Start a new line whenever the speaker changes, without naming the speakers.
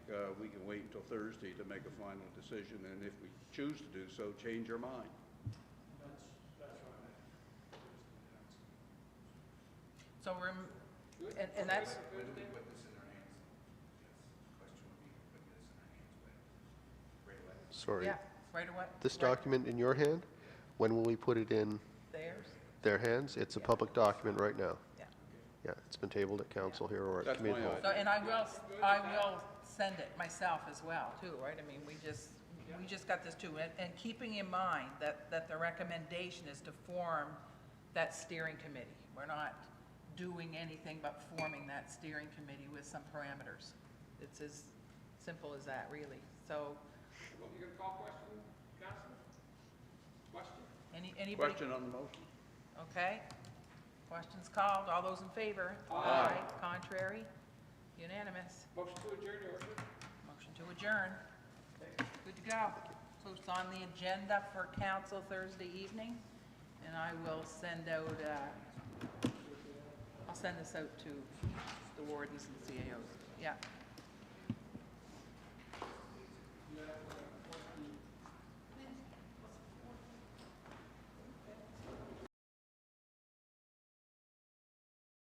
uh, we can wait until Thursday to make a final decision, and if we choose to do so, change our mind.
That's, that's what I'm at.
So we're, and, and that's,
When do we put this in their hands? Yes, Question would be, put this in their hands when? Right away.
Sorry.
yeah, right away.
This
right
document in your hand, when will we put it in
Theirs,
their hands? It's a public document right now.
yeah.
Yeah, it's been tabled at council here or at
That's
community
my
hall.
idea.
So, and I will, I will send it myself as well, too, right? I mean, we just, we just got this too. And, and keeping in mind that, that the recommendation is to form that steering committee. We're not doing anything but forming that steering committee with some parameters. It's as simple as that, really. So,
What, you gonna call question, Council? Question?
any, anybody?
Question on the motion?
Okay. Questions called. All those in favor? Aye. Contrary? Unanimous.
Motion to adjourn, Orford?
Motion to adjourn. Good to go. So it's on the agenda for council Thursday evening, and I will send out, uh, I'll send this out to the wardens and CAOs. Yeah.